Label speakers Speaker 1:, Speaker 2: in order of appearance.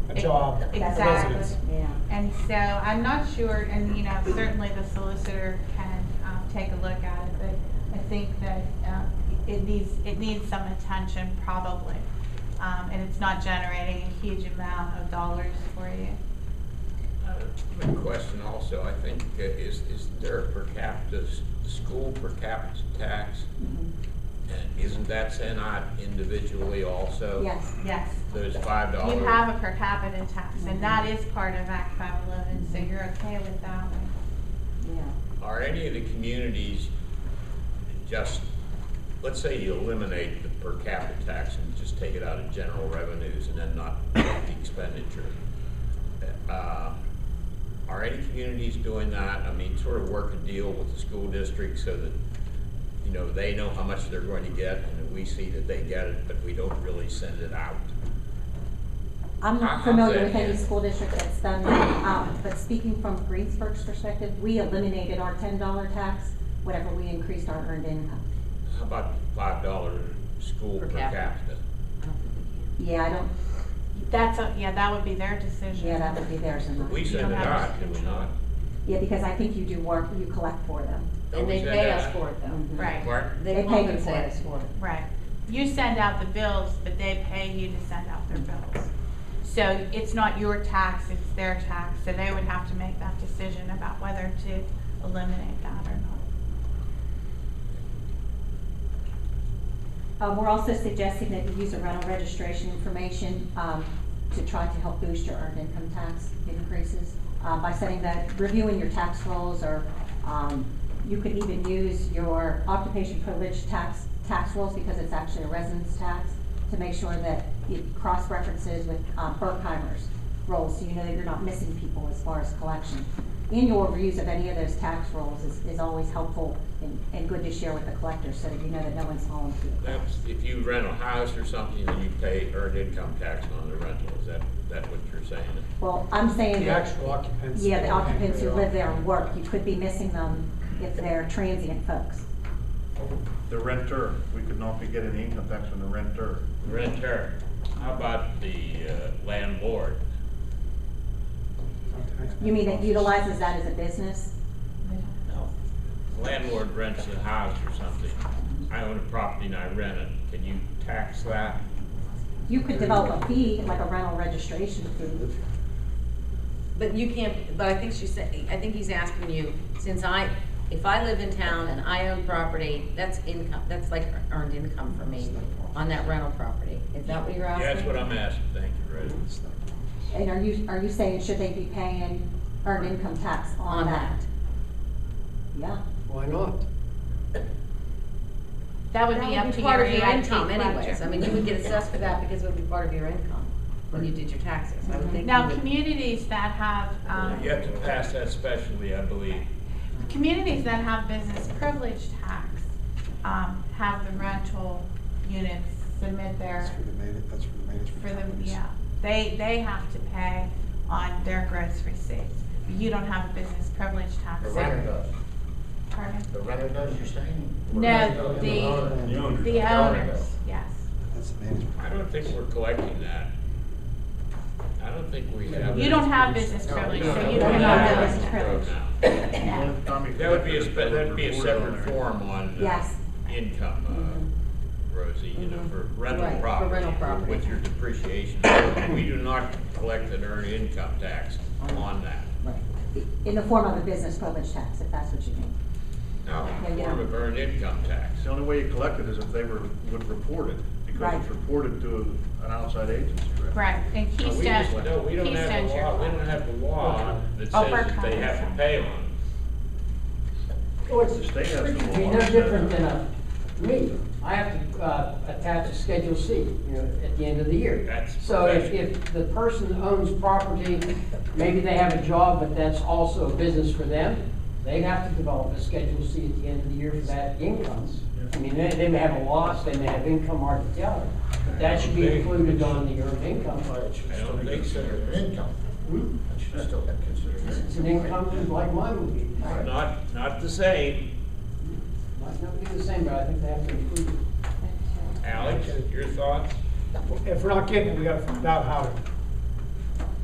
Speaker 1: a job, a
Speaker 2: Exactly.
Speaker 1: residence.
Speaker 3: Yeah.
Speaker 2: And so I'm not sure, and you know, certainly the solicitor can um, take a look at it, but I think that um, it needs, it needs some attention probably. Um, And it's not generating a huge amount of dollars for you.
Speaker 4: Uh, My question also, I think, uh, is, is there a per capita, s- school per capita tax?
Speaker 3: Mhm.
Speaker 4: And isn't that sent out individually also?
Speaker 3: Yes.
Speaker 2: Yes.
Speaker 4: So it's five dollars?
Speaker 2: You have a per capita tax, and that is part of Act 511, so you're okay with that one.
Speaker 3: Yeah.
Speaker 4: Are any of the communities just, let's say you eliminate the per capita tax and just take it out of general revenues and then not make the expenditure? Uh, Are any communities doing that? I mean, sort of work a deal with the school district so that, you know, they know how much they're going to get and that we see that they get it, but we don't really send it out.
Speaker 3: I'm
Speaker 4: How-
Speaker 3: not
Speaker 4: how's
Speaker 3: familiar
Speaker 4: that
Speaker 3: with any
Speaker 4: handled?
Speaker 3: school district that's done that, um, but speaking from Greensburg's perspective, we eliminated our ten dollar tax whenever we increased our earned income.
Speaker 4: How about five dollar school per
Speaker 5: Per capita.
Speaker 4: capita?
Speaker 5: I don't think we can.
Speaker 3: Yeah, I don't,
Speaker 2: That's, a- yeah, that would be their decision.
Speaker 3: yeah, that would be theirs and
Speaker 4: But
Speaker 3: not.
Speaker 4: We send it out, do we not?
Speaker 3: Yeah, because I think you do work, you collect for them.
Speaker 4: Don't
Speaker 5: And
Speaker 4: we
Speaker 5: they
Speaker 4: send
Speaker 5: pay
Speaker 4: that
Speaker 5: us
Speaker 4: out?
Speaker 5: for it though.
Speaker 3: Mhm.
Speaker 2: Right.
Speaker 4: Pardon?
Speaker 3: They
Speaker 5: Mm-hmm. They
Speaker 3: pay
Speaker 5: compensate
Speaker 3: you
Speaker 5: us for it.
Speaker 2: Right. You send out the bills, but they pay you to send out their bills. So it's not your tax, it's their tax, so they would have to make that decision about whether to eliminate that or not.
Speaker 3: Um, we're also suggesting that you use a rental registration information, um, to try to help boost your earned income tax increases, uh, by setting that, reviewing your tax rolls or, um, you could even use your occupation privilege tax, tax rolls because it's actually a residence tax, to make sure that it cross-references with, uh, Berkheimer's rolls, so you know that you're not missing people as far as collection. Annual reviews of any of those tax rolls is, is always helpful and, and good to share with the collectors, so that you know that no one's hauling you.
Speaker 4: That's, if you rent a house or something, then you pay earned income tax on the rental, is that, that what you're saying?
Speaker 3: Well, I'm saying
Speaker 1: The
Speaker 3: that,
Speaker 1: actual occupants.
Speaker 3: yeah, the
Speaker 1: and uh, who
Speaker 3: occupants
Speaker 1: they
Speaker 3: who
Speaker 1: are.
Speaker 3: live there and work, you could be missing them if they're transient folks.
Speaker 6: The renter, we could not be getting the income tax from the renter.
Speaker 4: Renter, how about the uh, landlord?
Speaker 3: You mean it utilizes that as a business?
Speaker 4: No. Landlord rents a house or something, I own a property and I rent it, can you tax that?
Speaker 3: You could develop a fee, like a rental registration fee.
Speaker 5: But you can't, but I think she's, sa- I think he's asking you, since I, if I live in town and I own property, that's income, that's like earned income for me on that rental property. Is that what you're asking?
Speaker 4: Yeah, that's what I'm asking, thank you, Rose.
Speaker 3: And are you, are you saying should they be paying earned income tax on that? Yeah,
Speaker 7: Why not?
Speaker 2: That would
Speaker 5: That
Speaker 2: be up to
Speaker 5: part
Speaker 2: your
Speaker 5: of your
Speaker 2: EIP
Speaker 5: income anyways. I
Speaker 2: budget.
Speaker 5: mean, you would get assessed for that because it would be part of your income when you did your taxes. I would think. you
Speaker 2: Now,
Speaker 5: would-
Speaker 2: communities that have, um,
Speaker 4: You have to pass that specially, I believe.
Speaker 2: communities that have business privilege tax, um, have the rental units submit their,
Speaker 7: That's for the man, that's for the management.
Speaker 2: for the,
Speaker 7: companies.
Speaker 2: yeah. They, they have to pay on their gross receipts. You don't have a business privilege tax.
Speaker 8: The renter does,
Speaker 2: Pardon?
Speaker 8: the renter does, you're saying?
Speaker 2: No, the,
Speaker 7: The
Speaker 6: owners.
Speaker 2: the owners, yes.
Speaker 7: That's the management.
Speaker 4: I don't think we're collecting that. I don't think we have.
Speaker 2: You don't have business privilege, so you don't
Speaker 3: don't have
Speaker 2: have
Speaker 3: business privilege.
Speaker 4: That would be a, spe- that'd be a separate form on. uh,
Speaker 3: yes,
Speaker 4: Income, uh, Rosie, you know, for
Speaker 5: Mm-hmm. Right,
Speaker 4: rental
Speaker 5: for
Speaker 4: property.
Speaker 5: rental property.
Speaker 4: With your depreciation. We do not collect an earned income tax on that.
Speaker 5: Right.
Speaker 3: in the form of a business privilege tax, if that's what you mean.
Speaker 4: No,
Speaker 3: Yeah, yeah.
Speaker 4: form of earned income tax.
Speaker 6: The only way you collect it is if they were, would report it, because it's
Speaker 3: Right.
Speaker 6: reported to an outside agency, right?
Speaker 2: Right, and
Speaker 4: No, we
Speaker 2: Keystone,
Speaker 4: just- No, we don't have
Speaker 2: Keystone's
Speaker 4: a
Speaker 2: your
Speaker 4: law, we
Speaker 2: client.
Speaker 4: don't have a law that
Speaker 2: Oh,
Speaker 4: says that they
Speaker 2: Burkheimer.
Speaker 4: have to pay on.
Speaker 8: Oh, it's,
Speaker 6: The state has a
Speaker 8: it'd be no
Speaker 6: law.
Speaker 8: different than a, me, I have to, uh, attach a Schedule C, you know, at the end of the year.
Speaker 4: That's
Speaker 8: So if,
Speaker 4: professional.
Speaker 8: if the person owns property, maybe they have a job, but that's also a business for them, they'd have to develop a Schedule C at the end of the year for that income. I mean, they, they may have a loss, they may have income, hard to tell, but that should be included on the earned income.
Speaker 4: I don't think so.
Speaker 6: Income.
Speaker 8: Hmm?
Speaker 6: should still get
Speaker 8: It's an income like mine would be.
Speaker 4: Not, not the same.
Speaker 8: Might not be the same, but I think they have to include it.
Speaker 4: Alex, your thoughts?
Speaker 1: If we're not getting it, we gotta find out how to